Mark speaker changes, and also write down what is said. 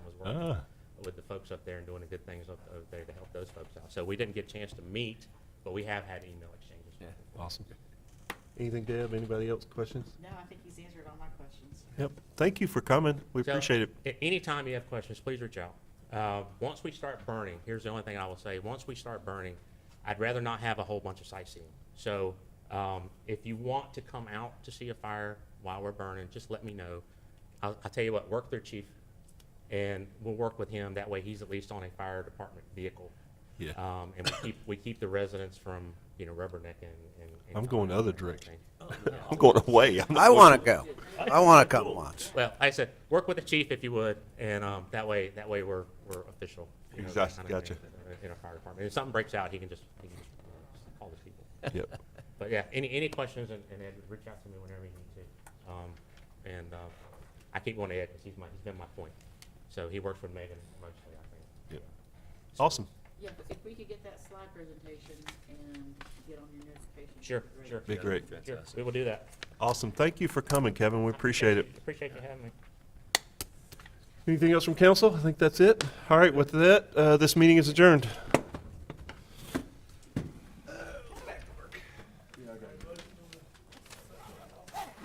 Speaker 1: with the folks up there and doing the good things up over there to help those folks out. So we didn't get a chance to meet, but we have had email exchanges.
Speaker 2: Yeah.
Speaker 3: Awesome.
Speaker 4: Anything, Deb? Anybody else? Questions?
Speaker 5: No, I think he's answered all my questions.
Speaker 4: Yep. Thank you for coming. We
Speaker 1: So,
Speaker 4: appreciate it.
Speaker 1: a- Anytime you have questions, please reach out. Uh, Once we start burning, here's the only thing I will say, once we start burning, I'd rather not have a whole bunch of sightseeing. So um, if you want to come out to see a fire while we're burning, just let me know. I'll, I'll tell you what, work their chief, and we'll work with him. That way, he's at least on a fire department vehicle.
Speaker 2: Yeah.
Speaker 1: Um, And we keep, we keep the residents from, you know, rubbernecking and. and
Speaker 4: I'm going the other direction.
Speaker 1: thing.
Speaker 4: I'm going away. I'm not
Speaker 6: I want to go. I want to come once.
Speaker 1: Well, I said, work with the chief if you would, and um, that way, that way we're, we're official. you know, that
Speaker 4: Exactly,
Speaker 1: kind of
Speaker 4: gotcha.
Speaker 1: thing In our fire department. If something breaks out, he can just, he can just uh, call the people.
Speaker 4: Yep.
Speaker 1: But yeah, any, any questions, and and Ed, reach out to me whenever you need to. Um, And um, I keep going to Ed, because he's my, he's been my point. So he works with Megan mostly, I think.
Speaker 4: Yep. Awesome.
Speaker 5: Yeah, but if we could get that slide presentation and get on your notifications. that'd
Speaker 1: Sure,
Speaker 5: be great.
Speaker 1: sure.
Speaker 4: Be great.
Speaker 1: Sure, We will do that.
Speaker 4: Awesome. Thank you for coming, Kevin. We appreciate it.
Speaker 1: Appreciate you having me.
Speaker 4: Anything else from council? I think that's it. All right, with that, uh, this meeting is adjourned.